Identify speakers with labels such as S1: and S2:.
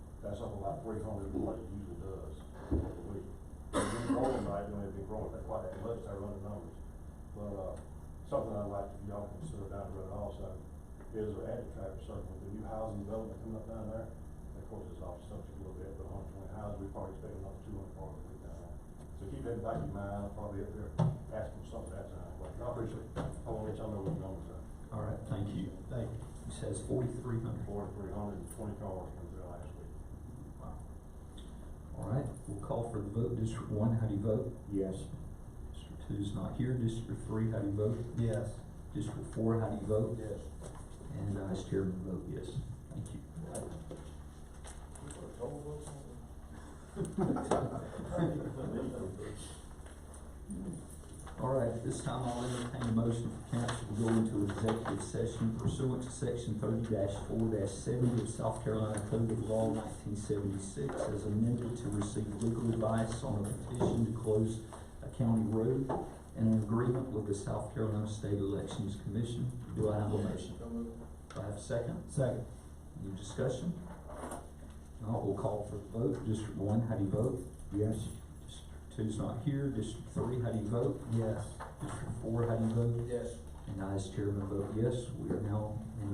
S1: like three hundred, like it usually does, a week. It's been growing right, and it's been growing that quite that much, I run the numbers. But, uh, something I'd like to y'all consider down the road also is at the traffic circle, the new housing development coming up down there. Of course, it's off subject a little bit, but on twenty houses, we probably expect another two hundred cars a week down there. So keep that in back of your mind, I'll probably up there asking for something at that time, but I appreciate it. I want to let y'all know what the numbers are.
S2: All right, thank you. Thank you. It says forty-three hundred.
S1: Forty-three hundred and twenty cars come through last week.
S2: Wow. All right, we'll call for the vote. District one, how do you vote?
S1: Yes.
S2: District two's not here. District three, how do you vote?
S3: Yes.
S2: District four, how do you vote?
S3: Yes.
S2: And I, as chairman, vote yes. Thank you. All right, at this time I'll entertain a motion for council to go into executive session pursuant to section thirty four seventy of South Carolina Code of Law nineteen seventy-six as amended to receive legal advice on a petition to close a county road and an agreement with the South Carolina State Elections Commission. Do I have a motion? Do I have a second?
S3: Second.
S2: Any discussion? Now we'll call for the vote. District one, how do you vote?
S3: Yes.
S2: District two's not here. District three, how do you vote?
S3: Yes.
S2: District four, how do you vote?
S3: Yes.
S2: And I, as chairman, vote yes. We are now in